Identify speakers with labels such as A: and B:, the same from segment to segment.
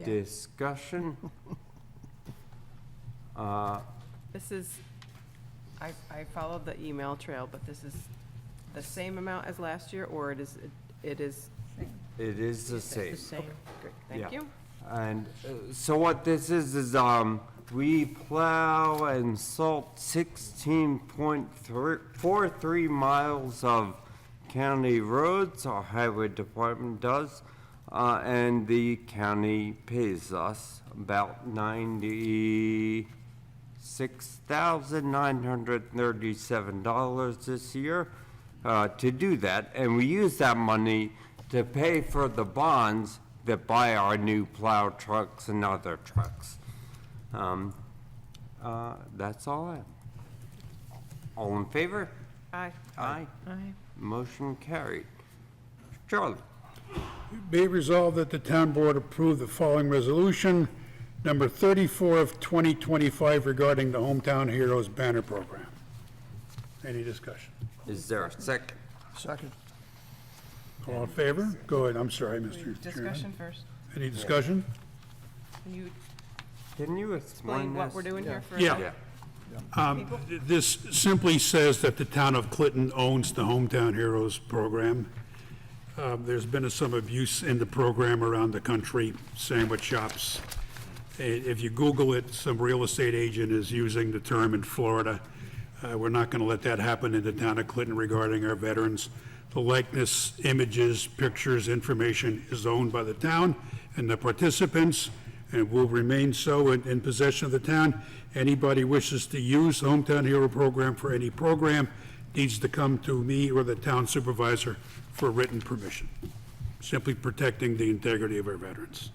A: Discussion? Uh,
B: This is, I, I followed the email trail, but this is the same amount as last year, or it is, it is,
A: It is the same.
B: great,
A: Yeah.
B: thank you.
A: And uh, so what this is, is, um, we plow and salt sixteen point three, four three miles of county roads, our highway department does, uh, and the county pays us about ninety-six thousand nine hundred thirty-seven dollars this year, uh, to do that, and we use that money to pay for the bonds that buy our new plow trucks and other trucks. Um, uh, That's all I have. All in favor?
B: Aye.
A: Aye.
B: Aye.
A: Motion carried. Charlie?
C: Be resolved that the town board approve the following resolution, number 34 of 2025 regarding the Hometown Heroes Banner Program. Any discussion?
A: Is there a second?
D: Second.
C: All in favor? Go ahead, I'm sorry, Mr. Chairman.
B: Discussion first.
C: Any discussion?
B: Can you
A: Can you explain
B: explain
A: this?
B: what we're doing here for?
C: Yeah. Um, th- This simply says that the town of Clinton owns the Hometown Heroes program. Um, There's been some abuse in the program around the country, sandwich shops. I- If you Google it, some real estate agent is using the term in Florida. Uh, We're not going to let that happen in the town of Clinton regarding our veterans. The likeness, images, pictures, information is owned by the town and the participants, and will remain so in, in possession of the town. Anybody wishes to use the Hometown Hero Program for any program needs to come to me or the town supervisor for written permission. Simply protecting the integrity of our veterans.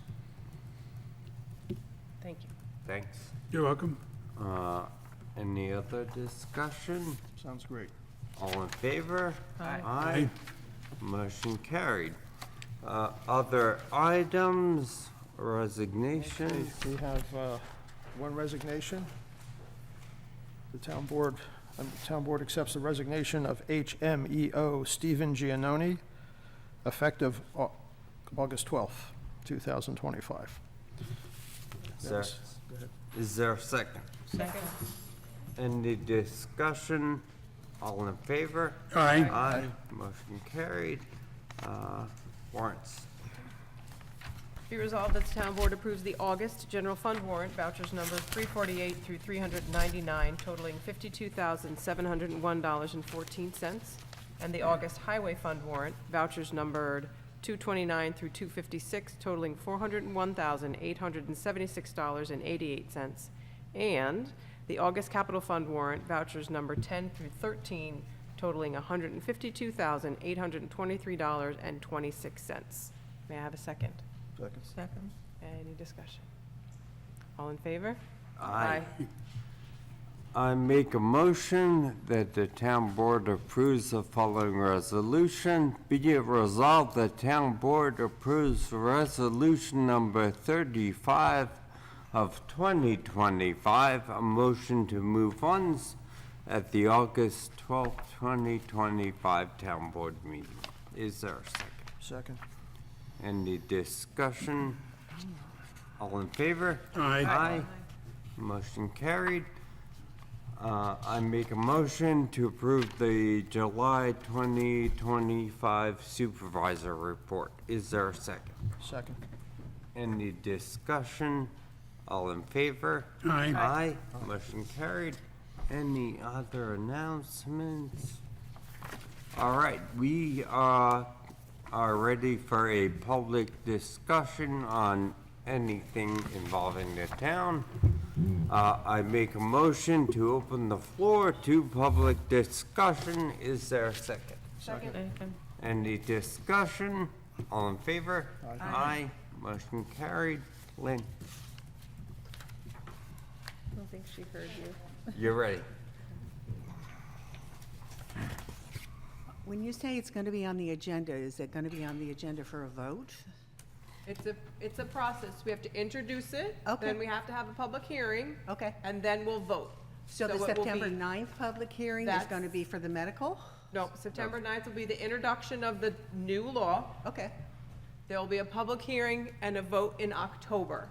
B: Thank you.
A: Thanks.
C: You're welcome.
A: Uh, Any other discussion?
D: Sounds great.
A: All in favor?
B: Aye.
A: Aye. Motion carried. Uh, Other items, resignations?
D: We have uh, one resignation. The town board, um, the town board accepts the resignation of E HMEO Stephen Giannoni, effective Au- August 12th, 2025.
A: Is there-
D: Go ahead.
A: Is there a second?
B: Second.
A: Any discussion? All in favor?
C: Aye.
A: Aye. Motion carried. Uh, Warrants.
B: Be resolved that the town board approves the August general fund warrant vouchers numbers 348 through 399 totaling $52,701.14, and the August highway fund warrant vouchers numbered 229 through 256 totaling $401,876.88, and the August capital fund warrant vouchers number 10 through 13 totaling $152,823.26. May I have a second?
D: Second.
B: Second. Any discussion? All in favor?
A: Aye. I make a motion that the town board approves the following resolution. Be it resolved, the town board approves resolution number 35 of 2025, a motion to move funds at the August 12, 2025 town board meeting. Is there a second?
D: Second.
A: Any discussion? All in favor?
C: Aye.
A: Aye. Motion carried. Uh, I make a motion to approve the July 2025 supervisor report. Is there a second?
D: Second.
A: Any discussion? All in favor?
C: Aye.
A: Aye. Motion carried. Any other announcements? All right, we uh, are ready for a public discussion on anything involving the town. Uh, I make a motion to open the floor to public discussion. Is there a second?
B: Second.
A: Any discussion? All in favor?
D: Aye.
A: Aye. Motion carried. Lynn,
E: I don't think she heard you.
A: you're ready.
F: When you say it's going to be on the agenda, is it going to be on the agenda for a vote?
B: It's a, it's a process. We have to introduce it.
F: Okay.
B: Then we have to have a public hearing.
F: Okay.
B: And then we'll vote.
F: So
B: it
F: the
B: will
F: September
B: be-
F: 9th public hearing is
B: That's-
F: going to be for the medical?
B: No, September 9th will be the introduction of the new law.
F: Okay,
B: There will be a public hearing and a vote in October.